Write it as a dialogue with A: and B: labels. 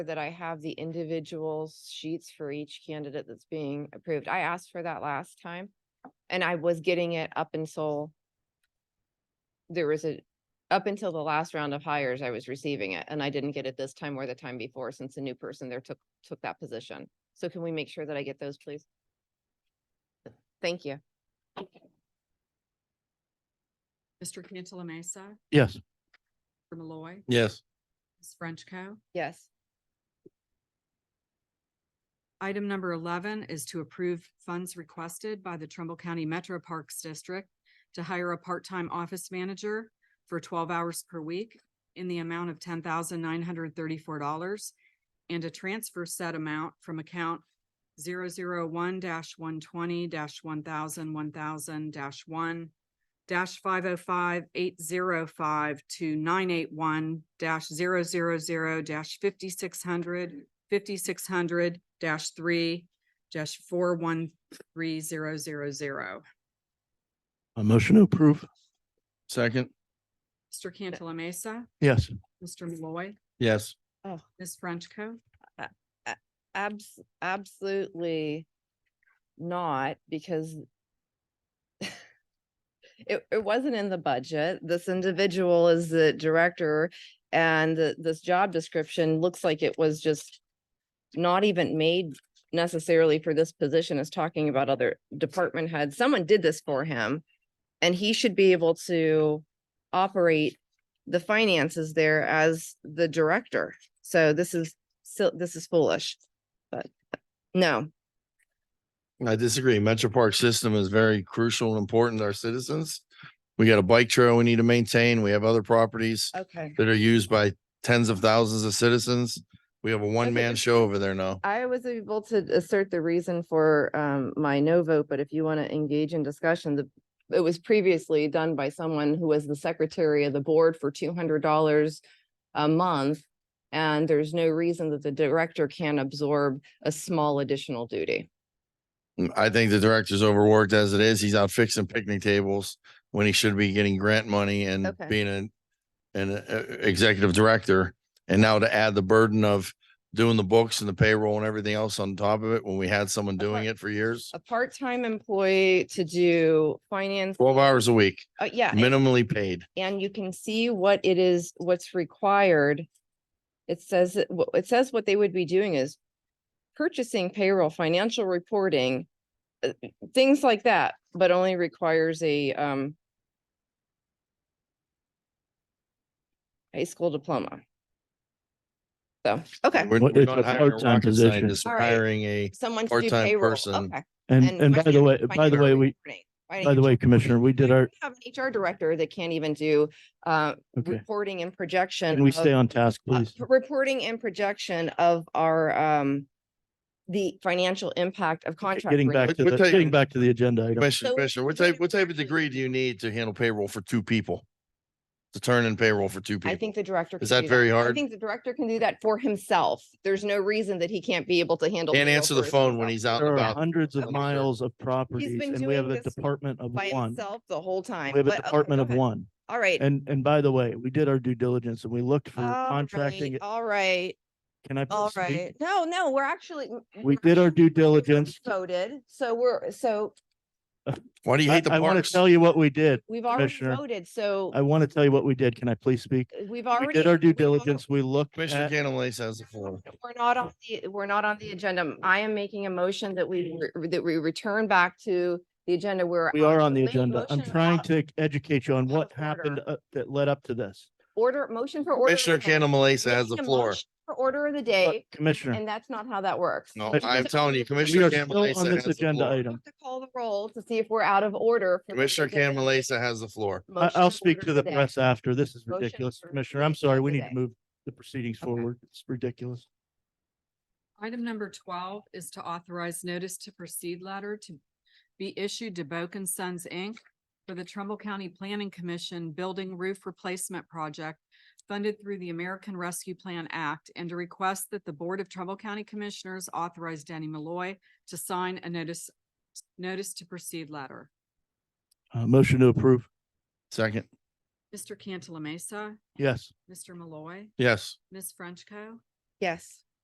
A: that I have the individual sheets for each candidate that's being approved. I asked for that last time. And I was getting it up until there was a, up until the last round of hires, I was receiving it and I didn't get it this time or the time before since a new person there took, took that position. So can we make sure that I get those, please? Thank you.
B: Mr. Cantala Mesa,
C: Yes.
B: Mr. Malloy,
C: Yes.
B: Ms. Frenchco.
A: Yes.
B: Item number eleven is to approve funds requested by the Trumbull County Metro Parks District to hire a part-time office manager for twelve hours per week in the amount of ten thousand nine hundred thirty-four dollars and to transfer said amount from account one one twenty 1000 one thousand one thousand one dash five oh five eight zero five to nine eight one dash zero zero zero dash fifty-six hundred fifty-six hundred dash three dash four one three zero zero zero.
C: A motion to approve. Second.
B: Mr. Cantala Mesa,
C: Yes.
B: Mr. Malloy,
C: Yes.
B: Ms. Frenchco.
A: Abs- absolutely not, because it, it wasn't in the budget. This individual is the director and th- this job description looks like it was just not even made necessarily for this position is talking about other department heads. Someone did this for him. And he should be able to operate the finances there as the director. So this is so this is foolish, but no,
C: I disagree. Metro Park system is very crucial and important to our citizens. We got a bike trail we need to maintain. We have other properties
A: okay.
C: that are used by tens of thousands of citizens. We have a one-man show over there now.
A: I was able to assert the reason for um my no vote, but if you want to engage in discussion, the it was previously done by someone who was the secretary of the board for two hundred dollars a month. And there's no reason that the director can't absorb a small additional duty.
C: Mm, I think the director's overworked as it is. He's out fixing picnic tables when he should be getting grant money and
A: Okay.
C: being an an uh, executive director. And now to add the burden of doing the books and the payroll and everything else on top of it when we had someone doing
A: Okay.
C: it for years.
A: A part-time employee to do finance,
C: Twelve hours a week,
A: uh, yeah.
C: minimally paid.
A: and you can see what it is, what's required. It says, that- wh- it says what they would be doing is purchasing payroll, financial reporting, uh, things like that, but only requires a um high school diploma. So, okay,
C: We're-
D: What-
C: we're
D: it's
C: not
D: a
C: hiring a
D: part-time
C: rocket
D: position.
C: scientist, we're
A: All right.
C: Hiring a,
A: someone to do
C: Part-time
A: payroll,
C: person.
A: okay.
D: And, and by the way,
A: finance-
D: by the
A: financial
D: way, we,
A: reporting. Why an
D: by the way,
A: HR
D: Commissioner, we did
A: Why do
D: our,
A: we Have an HR director that can't even do uh
D: okay,
A: reporting and projection.
D: can we
A: of-
D: stay on task,
A: uh,
D: please?
A: p- Reporting and projection of our, um, the financial impact of contract.
D: Getting
A: renewal.
D: back to
C: We're
D: the,
C: taking-
D: getting back to the agenda item.
C: Commissioner,
A: So
C: Commissioner, what
A: we're
C: type, what type of
A: actually-
C: degree do you need to handle payroll for two people? To turn in payroll for two
A: I
C: people?
A: think the director.
C: Is
A: can
C: that
A: do
C: very
A: I
C: hard?
A: think the director can do that for himself. There's no reason that he can't be able to handle.
C: Can't
A: payroll
C: answer the
A: for
C: phone
A: himself.
C: when he's out
D: There
C: and
D: are
C: about.
D: hundreds
C: I'm
D: of
C: sure.
D: miles of properties
A: been
D: and we have
A: doing
D: a
A: this
D: department of
A: By
D: one.
A: himself the whole time.
D: We have
A: but
D: a
A: okay,
D: department of
A: okay.
D: one.
A: All right.
D: And, and by the way, we did our due diligence and we looked for
A: All right,
D: contracting.
A: All right,
D: Can I?
A: all
D: please speak?
A: right. No, no, we're actually.
D: We did our due
A: we
D: diligence.
A: Voted, so we're, so
C: Why do you
D: I,
C: hate the
D: I want to
C: parks?
D: tell you what we did.
A: we've already
D: Commissioner,
A: voted, so
D: I want to tell you what we did. Can I please speak?
A: we've
D: We
A: already.
D: did our due
A: we've al-
D: diligence. We looked
C: Commissioner
D: at,
C: Cantalasa has the floor.
A: We're not on the, we're not on the agenda. I am making a motion that we, re- that we return back to the agenda where.
D: we are on the
A: Make a
D: agenda. I'm
A: motion uh,
D: trying
A: about
D: to educate you on what
A: of order.
D: happened uh, that led up to this.
A: Order, motion for order. of
C: Commissioner
A: the day.
C: Cantalasa has
A: Making
C: the
A: a
C: floor.
A: motion For order of the
D: Look,
A: day,
D: Commissioner,
A: and that's not how that works.
C: No,
D: Commissioner-
C: I'm telling you,
D: we
C: Commissioner
D: are still on
C: Cantalasa has
D: this
C: the
D: agenda
C: floor.
D: item.
A: Have to Call the roll to see if we're out of order. for the
C: Commissioner
A: agenda.
C: Cantalasa has the floor.
D: I,
A: Motion
D: I'll
A: for
D: speak
A: order
D: to
A: of
D: the
A: day.
D: press after. This is
A: Motion
D: ridiculous,
A: for
D: Commissioner. I'm
A: order
D: sorry.
A: of
D: We
A: the
D: need
A: day.
D: to move the proceedings
A: Okay.
D: forward. It's ridiculous.
B: Item number twelve is to authorize notice to proceed letter to be issued to Boak and Sons, Inc. for the Trumbull County Planning Commission Building Roof Replacement Project funded through the American Rescue Plan Act and to request that the Board of Trumbull County Commissioners authorize Danny Malloy to sign a notice, notice to proceed letter.
D: Uh, motion to approve.
C: Second,
B: Mr. Cantala Mesa,
D: Yes.
B: Mr. Malloy,
C: yes.
B: Ms. Frenchco.
A: Yes.